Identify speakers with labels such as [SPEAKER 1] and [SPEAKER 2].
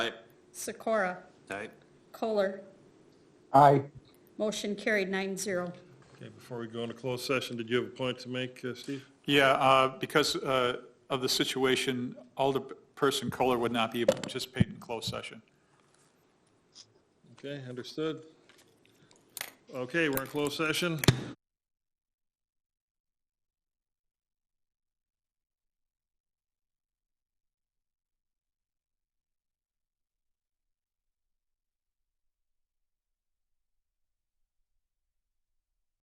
[SPEAKER 1] Sikora?
[SPEAKER 2] Aye.
[SPEAKER 1] Kohler?
[SPEAKER 3] Aye.
[SPEAKER 1] Motion carried nine zero.
[SPEAKER 4] Okay, before we go into closed session, did you have a point to make, uh, Steve?
[SPEAKER 5] Yeah, uh, because uh, of the situation, Alderperson Kohler would not be able to participate in closed session.
[SPEAKER 4] Okay, understood. Okay, we're in closed session.